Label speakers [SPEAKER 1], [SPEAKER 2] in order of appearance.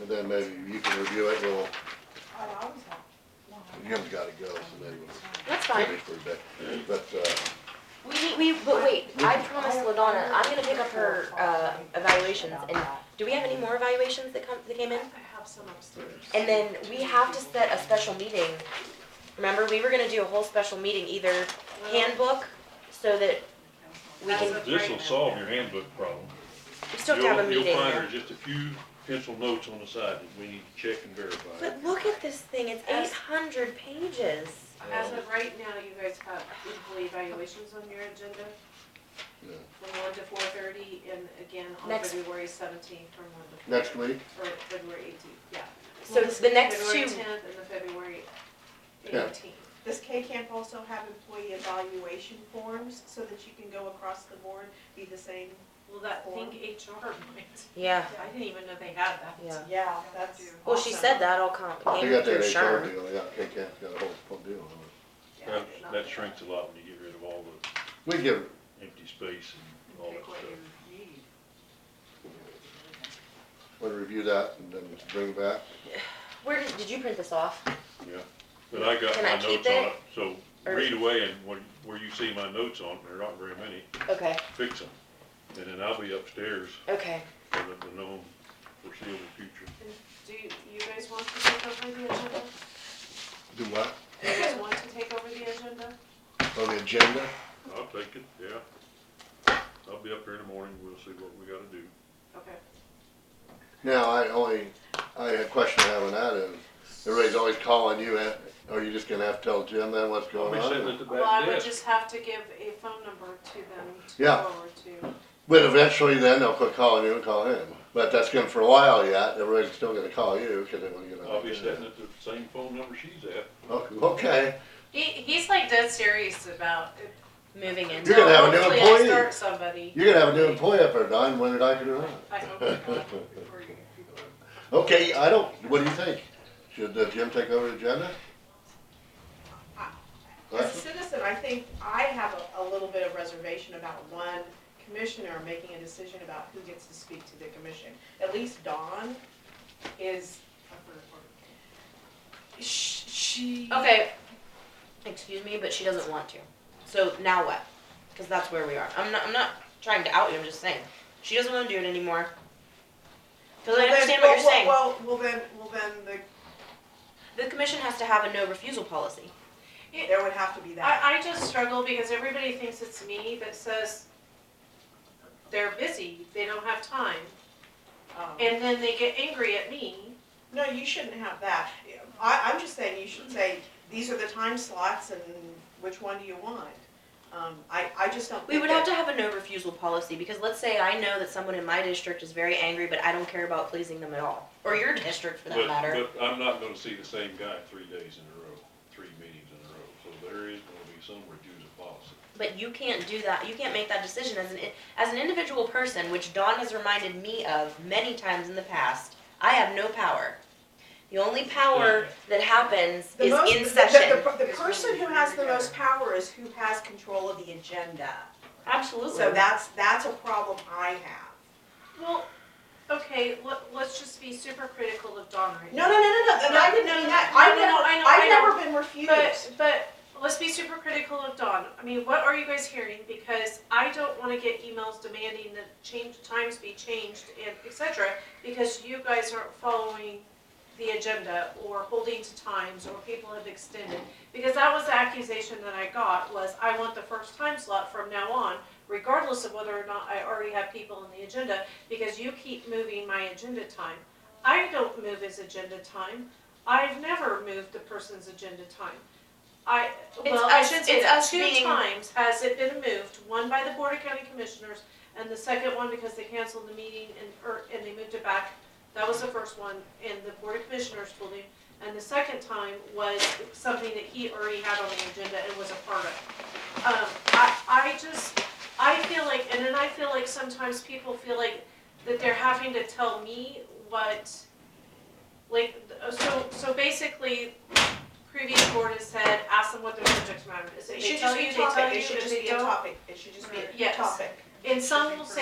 [SPEAKER 1] and then maybe you can review it, we'll,
[SPEAKER 2] Oh, I was like, no.
[SPEAKER 1] Jim's gotta go, so maybe we'll
[SPEAKER 3] That's fine.
[SPEAKER 1] finish for a bit. But, uh,
[SPEAKER 3] We, need- we, but wait, I promised Ladonna, I'm gonna pick up her, uh, evaluations and, do we have any more evaluations that come, that came in?
[SPEAKER 2] I have some upstairs.
[SPEAKER 3] And then we have to set a special meeting. Remember, we were gonna do a whole special meeting, either handbook, so that we
[SPEAKER 2] That's
[SPEAKER 3] can,
[SPEAKER 2] what-
[SPEAKER 4] This'll solve your handbook problem.
[SPEAKER 3] we still have to have a
[SPEAKER 4] You'll-
[SPEAKER 3] meeting.
[SPEAKER 4] You'll find there's just a few pencil notes on the side that we need to check and verify.
[SPEAKER 3] But look at this thing, it's eight hundred pages.
[SPEAKER 2] As of right now, you guys have equal evaluations on your agenda.
[SPEAKER 1] Yeah.
[SPEAKER 2] From one to four thirty and again on
[SPEAKER 3] Next-
[SPEAKER 2] February seventeenth from one to.
[SPEAKER 1] next week,
[SPEAKER 2] Or February eighteenth, yeah.
[SPEAKER 3] So it's the next two,
[SPEAKER 2] February tenth and the February
[SPEAKER 1] Yeah.
[SPEAKER 2] eighteenth.
[SPEAKER 5] Does K-Camp also have employee evaluation forms so that you can go across the board, be the same?
[SPEAKER 2] Well, that thing HR might,
[SPEAKER 3] yeah,
[SPEAKER 2] I didn't even know they had that.
[SPEAKER 3] yeah.
[SPEAKER 5] Yeah,
[SPEAKER 2] That's.
[SPEAKER 3] Well, she said that all com-
[SPEAKER 1] they
[SPEAKER 3] came
[SPEAKER 1] got
[SPEAKER 3] through
[SPEAKER 1] that HR
[SPEAKER 3] Sherm.
[SPEAKER 1] deal, yeah, K-Cam's got a whole whole deal on it.
[SPEAKER 2] Yeah,
[SPEAKER 4] That,
[SPEAKER 2] not
[SPEAKER 4] that
[SPEAKER 2] bad.
[SPEAKER 4] shrinks a lot when you get rid of all the
[SPEAKER 1] We give, it-
[SPEAKER 4] empty space and all that
[SPEAKER 2] Pick what
[SPEAKER 4] stuff.
[SPEAKER 2] you need.
[SPEAKER 1] we'll review that and then bring it back.
[SPEAKER 3] Where did, did you print this off?
[SPEAKER 4] Yeah, but I got
[SPEAKER 3] Can
[SPEAKER 4] my
[SPEAKER 3] I keep
[SPEAKER 4] notes on
[SPEAKER 3] it?
[SPEAKER 4] it, so
[SPEAKER 3] Or-
[SPEAKER 4] read away and when, where you see my notes on, there aren't very many,
[SPEAKER 3] Okay,
[SPEAKER 4] fix them. And then I'll be upstairs
[SPEAKER 3] okay.
[SPEAKER 4] for the, the known foreseeable future.
[SPEAKER 2] Do you, you guys want to take over the agenda?
[SPEAKER 1] Do what?
[SPEAKER 2] Do you guys want to take over the agenda?
[SPEAKER 1] On the agenda?
[SPEAKER 4] I'll take it, yeah. I'll be up there in the morning, we'll see what we gotta do.
[SPEAKER 2] Okay.
[SPEAKER 1] Now, I only, I, a question I have on that is, everybody's always calling you, and are you just gonna have to tell Jim then what's
[SPEAKER 4] I'll be
[SPEAKER 1] going
[SPEAKER 4] sitting
[SPEAKER 1] on?
[SPEAKER 4] at the
[SPEAKER 2] Well, I
[SPEAKER 4] back
[SPEAKER 2] would
[SPEAKER 4] desk.
[SPEAKER 2] just have to give a phone number to them to
[SPEAKER 1] Yeah.
[SPEAKER 2] go over to.
[SPEAKER 1] But eventually then they'll quit calling you and call him. But that's good for a while yet, everybody's still gonna call you, cause they wanna get on.
[SPEAKER 4] I'll be sitting at the same phone number she's at.
[SPEAKER 1] Okay, Okay,
[SPEAKER 2] He, he's like dead serious about it.
[SPEAKER 3] Moving in.
[SPEAKER 1] You're gonna have a new
[SPEAKER 2] Hopefully
[SPEAKER 1] employee.
[SPEAKER 2] I start somebody.
[SPEAKER 1] you're gonna have a new employee up there, Don, whether I can or
[SPEAKER 2] I hope I
[SPEAKER 1] not.
[SPEAKER 2] got it before you people.
[SPEAKER 1] Okay, I don't, what do you think? Should uh, Jim take over the agenda?
[SPEAKER 5] As a citizen, I think I have a, a little bit of reservation about one commissioner making a decision about who gets to speak to the commission. At least Dawn is, sh- she.
[SPEAKER 3] Okay. Excuse me, but she doesn't want to. So now what? Because that's where we are. I'm not. I'm not trying to out you. I'm just saying she doesn't want to do it anymore. Because I
[SPEAKER 5] Well, then-
[SPEAKER 3] understand what you're
[SPEAKER 5] well,
[SPEAKER 3] saying.
[SPEAKER 5] Well, well, then, well, then the,
[SPEAKER 3] the commission has to have a no refusal policy.
[SPEAKER 5] there would have to be that.
[SPEAKER 2] I, I just struggle because everybody thinks it's me that says they're busy, they don't have time,
[SPEAKER 5] um,
[SPEAKER 2] and then they get angry at me.
[SPEAKER 5] No, you shouldn't have that. I, I'm just saying, you should say, these are the time slots and which one do you want? Um, I, I just don't.
[SPEAKER 3] We would have to have a no refusal policy because let's say I know that someone in my district is very angry, but I don't care about pleasing them at all, or your district for that
[SPEAKER 4] But-
[SPEAKER 3] matter.
[SPEAKER 4] But I'm not gonna see the same guy three days in a row, three meetings in a row, so there is gonna be some reduced policy.
[SPEAKER 3] But you can't do that. You can't make that decision as an as an individual person, which Dawn has reminded me of many times in the past. I have no power. The only power that happens
[SPEAKER 5] The
[SPEAKER 3] is
[SPEAKER 5] most-
[SPEAKER 3] in
[SPEAKER 5] the-
[SPEAKER 3] session.
[SPEAKER 5] The, the- the person who has the most power is who has control of the agenda.
[SPEAKER 3] Absolutely.
[SPEAKER 5] So that's, that's a problem I have.
[SPEAKER 2] Well, okay, let, let's just be super critical of Dawn right now.
[SPEAKER 5] No, no, no, no, no, and I didn't know that.
[SPEAKER 2] No,
[SPEAKER 5] I've
[SPEAKER 2] no, no,
[SPEAKER 5] never,
[SPEAKER 2] I know, I
[SPEAKER 5] I've
[SPEAKER 2] know.
[SPEAKER 5] never been refused.
[SPEAKER 2] But, but let's be super critical of Dawn. I mean, what are you guys hearing? Because I don't wanna get emails demanding that change, times be changed and et cetera, because you guys aren't following the agenda or holding to times or people have extended. Because that was the accusation that I got was I want the first time slot from now on, regardless of whether or not I already have people on the agenda, because you keep moving my agenda time. I don't move his agenda time. I've never moved the person's agenda time. I, well, I
[SPEAKER 3] us-
[SPEAKER 2] should say
[SPEAKER 3] it's
[SPEAKER 2] that
[SPEAKER 3] us
[SPEAKER 2] two
[SPEAKER 3] being-
[SPEAKER 2] times has it been moved, one by the Board of County Commissioners, and the second one because they canceled the meeting and, or, and they moved it back. That was the first one, in the Board of Commissioners building, and the second time was something that he already had on the agenda and was a part of. Um, I, I just, I feel like, and then I feel like sometimes people feel like that they're having to tell me what, like, so, so basically, previous board has said, ask them what their subject matter is. If
[SPEAKER 5] It
[SPEAKER 2] They
[SPEAKER 5] should
[SPEAKER 2] tell
[SPEAKER 5] just be
[SPEAKER 2] you,
[SPEAKER 5] a
[SPEAKER 2] they tell
[SPEAKER 5] topic,
[SPEAKER 2] you,
[SPEAKER 5] it should
[SPEAKER 2] if
[SPEAKER 5] just be
[SPEAKER 2] they
[SPEAKER 5] a
[SPEAKER 2] don't.
[SPEAKER 5] topic, it should just be a
[SPEAKER 2] Yes.
[SPEAKER 5] topic.
[SPEAKER 2] And some will say